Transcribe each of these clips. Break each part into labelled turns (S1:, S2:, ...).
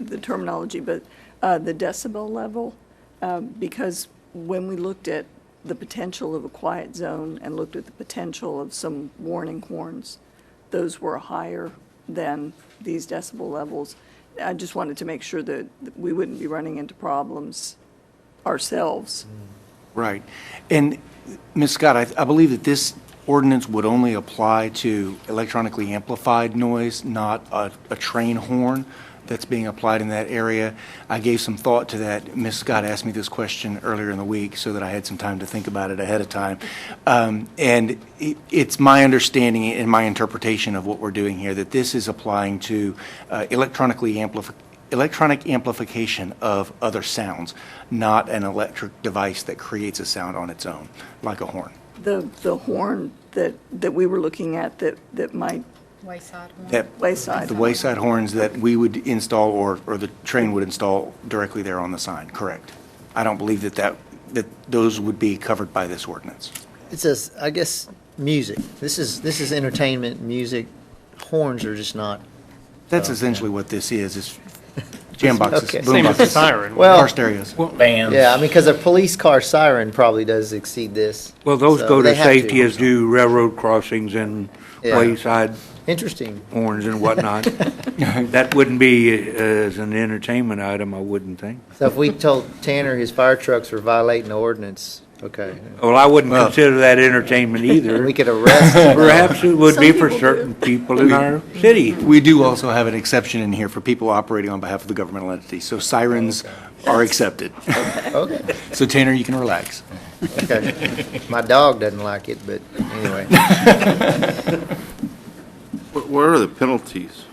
S1: the terminology, but uh, the decibel level, um, because when we looked at the potential of a quiet zone and looked at the potential of some warning horns, those were higher than these decibel levels. I just wanted to make sure that we wouldn't be running into problems ourselves.
S2: Right. And, Ms. Scott, I, I believe that this ordinance would only apply to electronically amplified noise, not a, a train horn that's being applied in that area. I gave some thought to that. Ms. Scott asked me this question earlier in the week, so that I had some time to think about it ahead of time. Um, and it, it's my understanding and my interpretation of what we're doing here, that this is applying to uh, electronically amplified, electronic amplification of other sounds, not an electric device that creates a sound on its own, like a horn.
S1: The, the horn that, that we were looking at that, that might,
S3: Wayside one.
S2: That-
S1: Wayside.
S2: The wayside horns that we would install, or, or the train would install directly there on the sign, correct. I don't believe that that, that those would be covered by this ordinance.
S4: It says, I guess, music. This is, this is entertainment, music. Horns are just not,
S2: That's essentially what this is, is jam boxes,
S4: Okay.
S2: boom
S5: Same as the
S2: boxes.
S5: siren.
S4: Well-
S2: Car stereos.
S6: bands.
S4: yeah, I mean, because a police car siren probably does exceed this.
S7: Well, those
S4: So
S7: go
S4: they
S7: to
S4: have
S7: safety as do railroad crossings and
S4: Yeah.
S7: wayside
S4: Interesting.
S7: horns and whatnot. That wouldn't be uh, as an entertainment item, I wouldn't think.
S4: So if we told Tanner his fire trucks were violating the ordinance, okay,
S7: Well, I wouldn't consider that entertainment either.
S4: we could arrest him.
S7: Perhaps it would
S1: Some
S7: be for
S1: people do.
S7: certain people in our city.
S2: We do also have an exception in here for people operating on behalf of the governmental entity, so sirens are accepted.
S4: Okay,
S2: So Tanner, you can relax.
S4: okay. My dog doesn't like it, but anyway.
S8: What what are the penalties?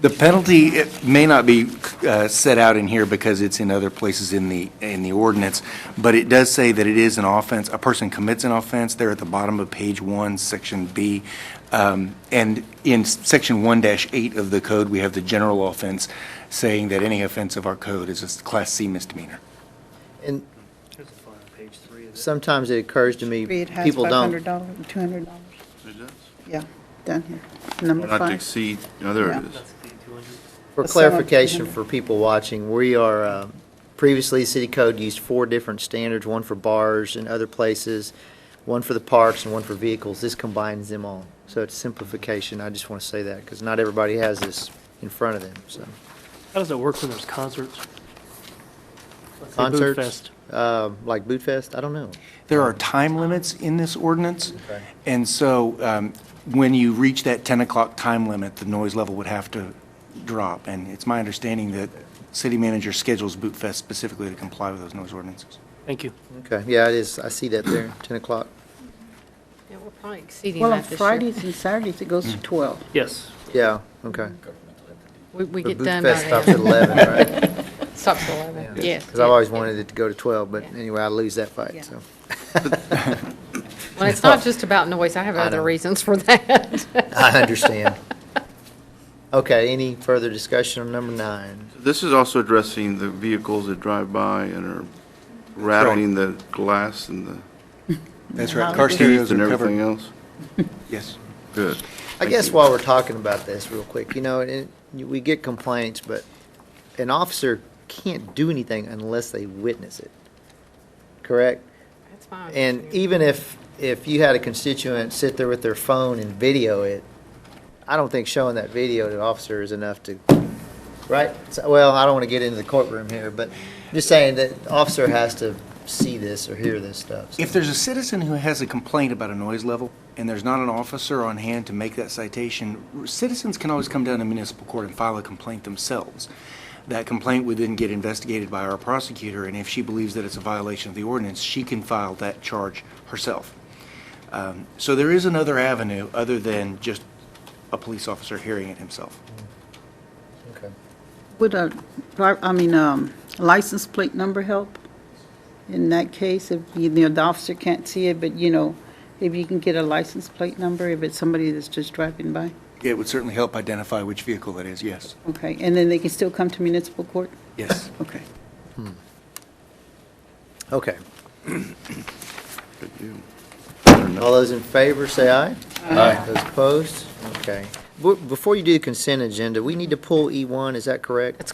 S2: The penalty it may not be uh, set out in here because it's in other places in the, in the ordinance, but it does say that it is an offense, a person commits an offense, there at the bottom of page one, section B. Um, And in section one eight of the code, we have the general offense, saying that any offense of our code is a class C misdemeanor.
S4: And sometimes it occurs to me,
S9: It has
S4: people don't.
S9: $500, $200,
S8: It does.
S9: yeah, down here, number
S8: Not to
S9: five.
S8: exceed, no, there
S9: Yeah.
S8: it is.
S4: For
S9: Let's sum up
S4: clarification
S9: 200.
S4: for people watching, we are, uh, previously, city code used four different standards, one for bars and other places, one for the parks and one for vehicles. This combines them all. So it's simplification. I just want to say that because not everybody has this in front of them, so.
S5: How does it work when there's concerts? Let's say Boot
S4: Concerts?
S5: Fest.
S4: Uh, Like Boot Fest? I don't know.
S2: There are time limits in this ordinance, and so um, when you reach that 10 o'clock time limit, the noise level would have to drop, and it's my understanding that city manager schedules Boot Fest specifically to comply with those noise ordinances.
S5: Thank you.
S4: Okay, yeah, it is. I see that there, 10 o'clock.
S3: Yeah, we're probably exceeding
S9: Well, on
S3: that this year.
S9: Fridays and Saturdays, it goes to 12.
S5: Yes.
S4: Yeah, okay.
S3: We, we
S4: But
S3: get
S4: Boot
S3: done by
S4: Fest stops at
S3: then.
S4: 11, right?
S3: Stops at eleven, yes.
S4: Because I've always
S3: yeah.
S4: wanted it to go to 12, but anyway, I lose that fight, so.
S3: Well, it's not just about noise, I have other
S4: know.
S3: reasons for that.
S4: I understand. Okay, any further discussion on number nine?
S8: This is also addressing the vehicles that drive by and are rattling the glass and the
S2: That's right. Car
S8: teeth
S2: stereos
S8: and
S2: are
S8: everything
S2: covered.
S8: else.
S2: Yes.
S8: Good.
S4: I guess while we're talking about this real quick, you know, and you- we get complaints, but an officer can't do anything unless they witness it, correct?
S3: That's fine.
S4: And even if, if you had a constituent sit there with their phone and video it, I don't think showing that video to an officer is enough to, right? So- Well, I don't want to get into the courtroom here, but I'm just saying that the officer has to see this or hear this stuff. so.
S2: If there's a citizen who has a complaint about a noise level, and there's not an officer on hand to make that citation, citizens can always come down to municipal court and file a complaint themselves. That complaint would then get investigated by our prosecutor, and if she believes that it's a violation of the ordinance, she can file that charge herself. Um, So there is another avenue other than just a police officer hearing it himself.
S4: Okay.
S9: Would a, dri- I mean, um, license plate number help? In that case, if, you know, the officer can't see it, but, you know, if you can get a license plate number, if it's somebody that's just driving by?
S2: It would certainly help identify which vehicle that is, yes.
S9: Okay, and then they can still come to municipal court?
S2: Yes.
S9: Okay.
S4: Okay.
S8: Good deal.
S4: All those in favor, say aye. Aye. Those opposed? Okay. Be- Before you do the consent agenda, we need to pull E1, E is that correct?